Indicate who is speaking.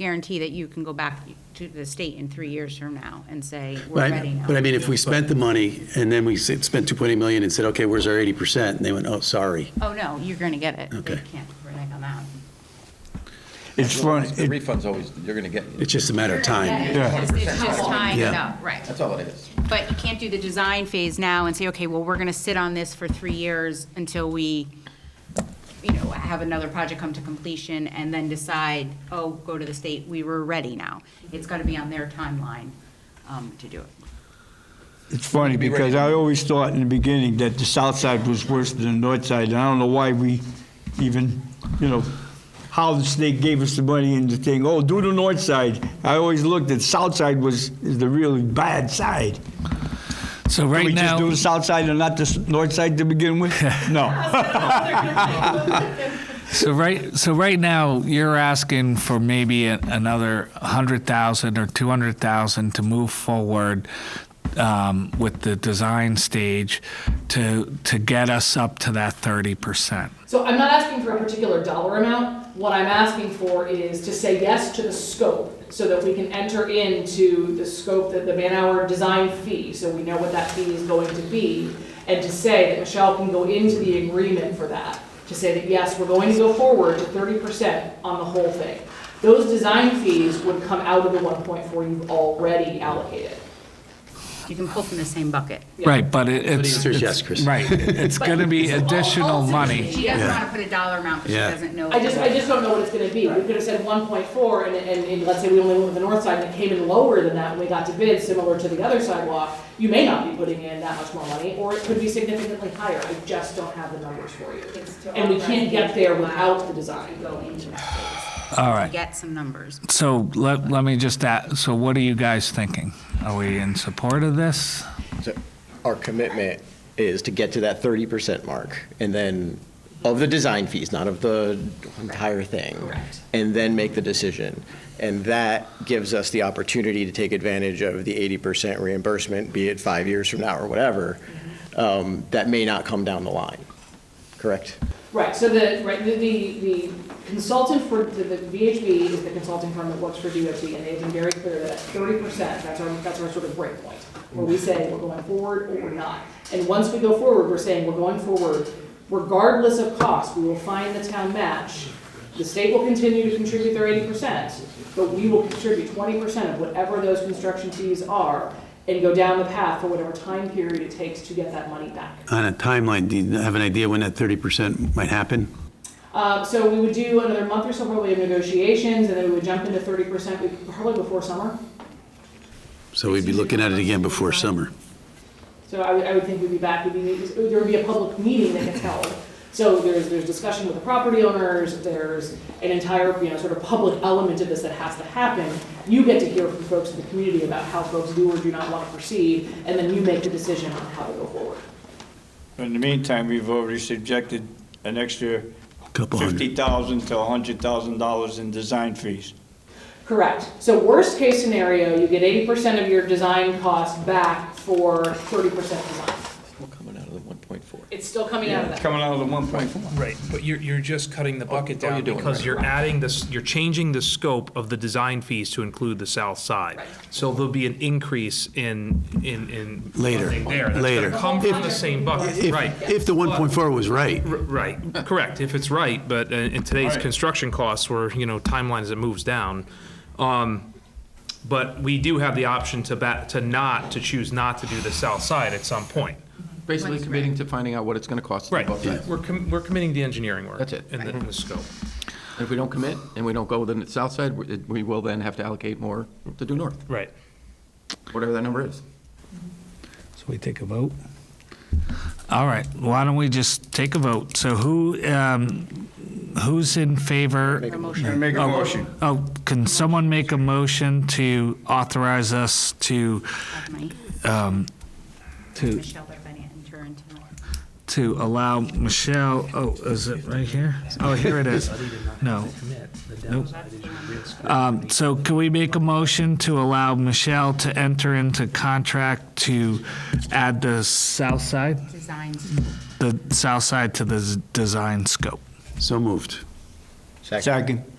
Speaker 1: guarantee that you can go back to the state in three years from now and say, we're ready
Speaker 2: Right,
Speaker 1: now.
Speaker 2: but I mean, if we spent the money and then we said- spent 2.8 million and said, okay, where's our 80%? And they went, oh, sorry.
Speaker 1: Oh, no, you're going to get it. They
Speaker 2: Okay.
Speaker 1: can't, we're going to come out.
Speaker 3: It's funny,
Speaker 4: The
Speaker 3: it-
Speaker 4: refund's always, you're going to get,
Speaker 2: It's just a matter of time.
Speaker 3: Yeah.
Speaker 1: It's it's just tying it up, right.
Speaker 4: that's all it is.
Speaker 1: But you can't do the design phase now and say, okay, well, we're gonna sit on this for three years until we, you know, have another project come to completion and then decide, oh, go to the state, we were ready now. It's gotta be on their timeline, um, to do it.
Speaker 3: it's funny
Speaker 4: Be
Speaker 3: because
Speaker 4: ready.
Speaker 3: I always thought in the beginning that the south side was worse than the north side. And I don't know why we even, you know, how the state gave us the money and the thing, oh, do the north side. I always looked at south side was, is the really bad side.
Speaker 5: So
Speaker 3: Can
Speaker 5: right
Speaker 3: we just do
Speaker 5: now,
Speaker 3: the south side and not the s- north side to begin with? No.
Speaker 5: so right, so right now, you're asking for maybe a, another hundred thousand or two hundred thousand to move forward um, with the design stage to to get us up to that thirty percent.
Speaker 6: So I'm not asking for a particular dollar amount. What I'm asking for is to say yes to the scope so that we can enter into the scope that the man-hour design fee, so we know what that fee is going to be, and to say that Michelle can go into the agreement for that, to say that, yes, we're going to go forward to thirty percent on the whole thing. Those design fees would come out of the one point four you've already allocated.
Speaker 1: You can pull from the same bucket.
Speaker 5: Right, but it, it's
Speaker 2: answer is
Speaker 5: it's-
Speaker 2: yes, Chris.
Speaker 5: Right, it's going to be additional money.
Speaker 1: She doesn't wanna put a dollar amount, but she
Speaker 2: Yeah.
Speaker 1: doesn't know.
Speaker 6: I just, I just don't know what it's gonna be. We could have said one point four, and, and, and let's say we only went with the north side, and it came in lower than that when we got to bid, similar to the other sidewalk. You may not be putting in that much more money, or it could be significantly higher. I just don't have the numbers for you. And we can't get there without the design.
Speaker 1: Go into that phase.
Speaker 5: All right.
Speaker 1: Get some numbers.
Speaker 5: So let, let me just ask, so what are you guys thinking? Are we in support of this?
Speaker 7: So Our commitment is to get to that 30% mark, and then, of the design fees, not of the entire thing.
Speaker 6: Correct.
Speaker 7: And then make the decision. And that gives us the opportunity to take advantage of the 80% reimbursement, be it five years from now or whatever, um, that may not come down the line, correct?
Speaker 6: Right, so the, right, the, the the consultant for, the the VHB is the consulting firm that works for DOT, and they've been very clear that thirty percent, that's our, that's our sort of break point, where we say we're going forward or we're not. And once we go forward, we're saying we're going forward regardless of cost, we will find the town match. The state will continue to contribute their eighty percent, but we will contribute twenty percent of whatever those construction fees are, and go down the path for whatever time period it takes to get that money back.
Speaker 2: On a timeline, do you have an idea when that 30% might happen?
Speaker 6: Uh, so we would do another month or so probably of negotiations, and then we would jump into thirty percent, probably before summer.
Speaker 2: So we'd be looking at it again before summer.
Speaker 6: So I would, I would think we'd be back, we'd be, there would be a public meeting that gets held. So there's, there's discussion with the property owners, there's an entire, you know, sort of public element of this that has to happen. You get to hear from folks in the community about how folks do or do not want to proceed, and then you make the decision on how to go forward.
Speaker 8: In the meantime, we've already subjected an extra
Speaker 2: Couple hundred.
Speaker 8: fifty thousand to hundred thousand dollars in design fees.
Speaker 6: Correct. So worst case scenario, you get eighty percent of your design costs back for thirty percent design.
Speaker 4: We're coming out of the 1.4.
Speaker 6: It's still coming out of
Speaker 8: It's
Speaker 6: that.
Speaker 8: coming out of the one point four.
Speaker 9: Right, but you're, you're just cutting the bucket
Speaker 4: oh,
Speaker 9: down
Speaker 4: you're doing
Speaker 9: because
Speaker 4: it.
Speaker 9: you're adding this, you're changing the scope of the design fees to include the south side.
Speaker 6: Right.
Speaker 9: So there'll be an increase in, in, in.
Speaker 2: Later,
Speaker 9: funding there. That's gonna
Speaker 2: later.
Speaker 9: Come from the same bucket,
Speaker 2: If-
Speaker 9: right.
Speaker 2: If the 1.4 was right,
Speaker 9: R- Right, correct, if it's right, but uh, in today's construction costs where, you know, timeline as it moves down. um, But we do have the option to ba, to not, to choose not to do the south side at some point.
Speaker 4: Basically committing to finding out what it's going to cost. to
Speaker 9: Right,
Speaker 4: both sides.
Speaker 9: we're, com- we're committing the engineering work.
Speaker 4: That's it.
Speaker 9: In the, in the scope.
Speaker 4: And if we don't commit and we don't go with the south side, we we will then have to allocate more to do north,
Speaker 9: Right.
Speaker 4: whatever that number is.
Speaker 5: So we take a vote? All right, why don't we just take a vote? So who, um, who's in favor?
Speaker 1: Promotion.
Speaker 3: Make
Speaker 4: Um,
Speaker 5: Oh, Oh, can someone make a motion to authorize us to,
Speaker 1: of Mike.
Speaker 5: to,
Speaker 1: Michelle Berbennett and Turin tomorrow.
Speaker 5: to allow Michelle, oh, is it right here? Oh, here it is. No. Nope. Um, So can we make a motion to allow Michelle to enter into contract to add the south side?
Speaker 1: Designs.
Speaker 5: the south side to the z- design scope.
Speaker 2: so moved.
Speaker 3: Second.